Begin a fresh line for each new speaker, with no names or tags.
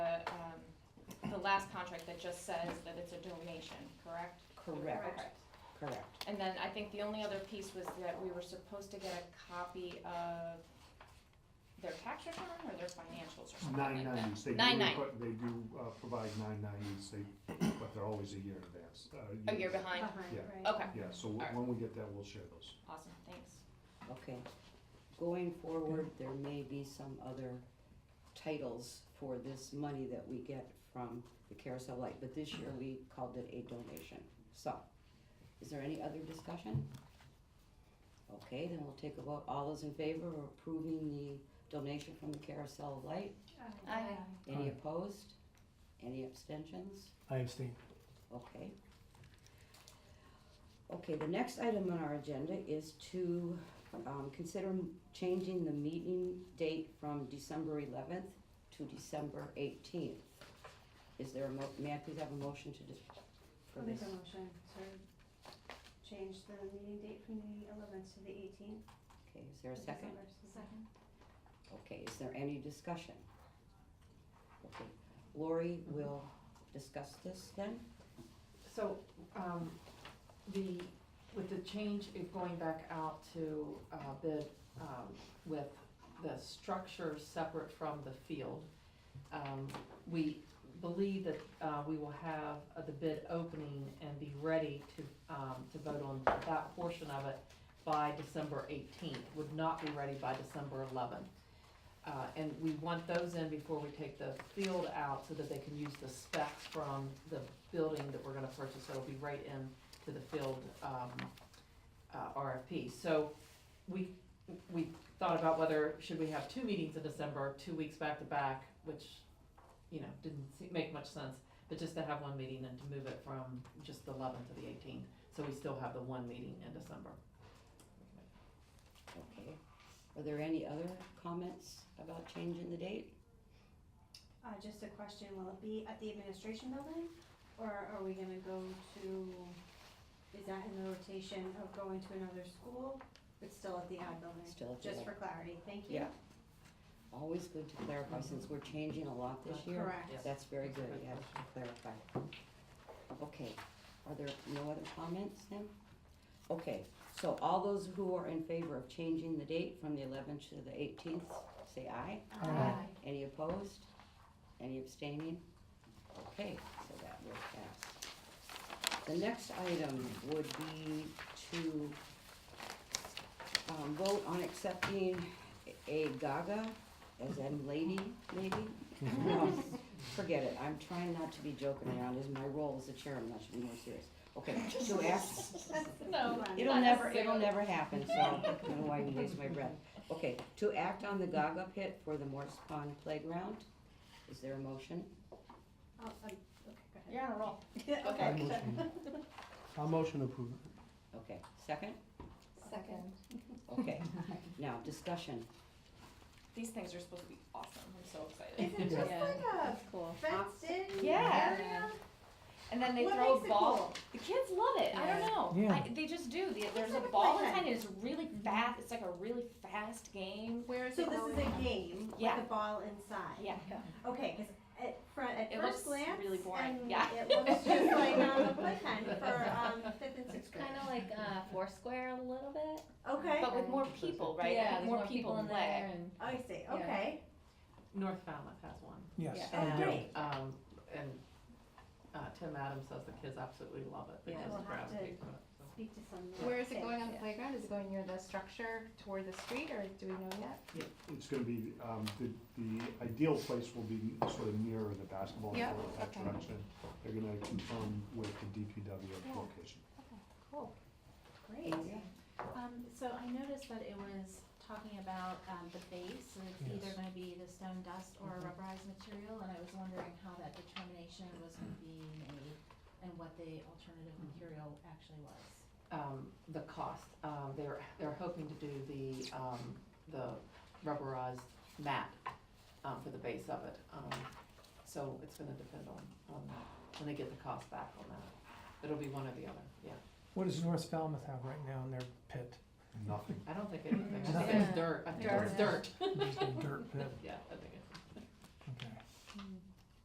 um, last contract that just says that it's a donation, correct?
Correct,
Okay.
correct.
And then I think the only other piece was that we were supposed to get a copy of their tax return or their financials or something
Nine
like that.
nineties, they do,
Nine nine.
put- they do uh, provide nine nineties, they, but they're always a year in advance. uh,
A year Oh, behind,
Yeah.
okay,
Yeah, so wh- when we get that, we'll share those.
awesome, thanks.
Okay. Going forward, there may be some other titles for this money that we get from the carousel light, but this year we called it a donation. So, is there any other discussion? Okay, then we'll take a vote. All those in favor of approving the donation from the carousel light?
Aye.
Any
Aye.
opposed? Any abstentions?
I abstain.
Okay. Okay, the next item on our agenda is to, um, consider m- changing the meeting date from December eleventh to December eighteenth. Is there a mo- may I please have a motion to dis- for
I'll make
this?
a motion to change the meeting date from the eleventh to the eighteenth.
Okay, is there a second? Okay, is there any discussion? Okay, Lori will discuss this then?
So, um, the, with the change of going back out to, uh, bid, um, with the structure separate from the field, um, we believe that, uh, we will have uh, the bid opening and be ready to, um, to vote on that portion of it by December eighteenth, would not be ready by December eleventh. Uh, and we want those in before we take the field out so that they can use the specs from the building that we're gonna purchase, so it'll be right in to the field, um, uh, RFP. So we, we thought about whether, should we have two meetings in December, two weeks back to back, which, you know, didn't se- make much sense, but just to have one meeting and to move it from just the eleventh to the eighteenth, so we still have the one meeting in December.
Okay, are there any other comments about changing the date?
Uh, just a question, will it be at the administration building, or are we gonna go to, is that in the rotation of going to another school? It's still at the ad building,
Still at the
just
ad.
for clarity, thank you.
Yeah. Always good to clarify, since we're changing a lot this year.
Correct.
Yes.
That's very good, you have to clarify. Okay, are there no other comments then? Okay, so all those who are in favor of changing the date from the eleventh to the eighteenth, say aye.
Aye.
Any opposed? Any abstaining? Okay, so that will pass. The next item would be to um, vote on accepting a Gaga, as in lady, maybe? No, Forget it, I'm trying not to be joking around, is my role as the chairman, I should be more serious. Okay, to ask,
No,
It'll
Not
never, it'll
necessarily.
never happen, so I don't know why you waste my breath. Okay, to act on the Gaga pit for the Morse Pond Playground, is there a motion?
Oh, um, okay, go ahead.
You're on a roll.
Yeah,
Okay.
I
okay.
motion, I motion approve.
Okay, second?
Second.
Okay, now, discussion.
These things are supposed to be awesome, I'm so excited.
Is it just
Yeah.
like a
Cool.
fenced in
Yeah.
area?
And then they
What
throw a
makes it
ball. The kids love it. I
Yeah.
don't know.
Yeah.
I, they just do. The, there's a
It's
ball
like Mm-hmm.
behind it. It's really fast. It's like a really fast game.
Where is
So
it
this
going?
is a game with
Yeah.
a ball inside?
Yeah.
Okay, because at, fr- at
It looks
first glance,
really boring,
and
yeah.
it looks just like on the playpen for um, fifth and
It's
sixth grade.
kind of like uh, Foursquare a little bit.
Okay,
But with more people, right?
Yeah,
Like,
there's
more,
more people in
play.
there and
I see.
Yeah.
Okay, Oh,
North Falmouth has one.
Yes.
Yeah.
I do.
Great.
Um, and, uh, Tim Adams says the kids absolutely love it, they
Yeah.
just
We'll have to-
gravitate to it, so.
speak to some.
where is it going on the
Yeah.
playground? Is it going near the structure toward the street or do we know yet?
It's gonna be, um, the, the ideal place will be sort of near the basketball
Yeah,
court, that
okay.
direction. They're gonna confirm with the DPW
Yeah.
location.
Cool.
Great.
Um, so I noticed that it was talking about, um, the base, and it's either
Yes.
gonna be the stone dust or
Mhm.
rubberized material, and I was wondering how that determination was gonna be made, and what the alternative material actually was.
um, the cost. Um, they're, they're hoping to do the, um, the rubberized mat, um, for the base of it. Um, so it's gonna depend on, on that, when they get the cost back on that. It'll be one or the other, yeah.
What does North Falmouth have right now in their pit?
Nothing.
I don't think anything, I think
Nothing.
it's dirt, I think it's dirt,
Just a dirt pit.
yeah, I think it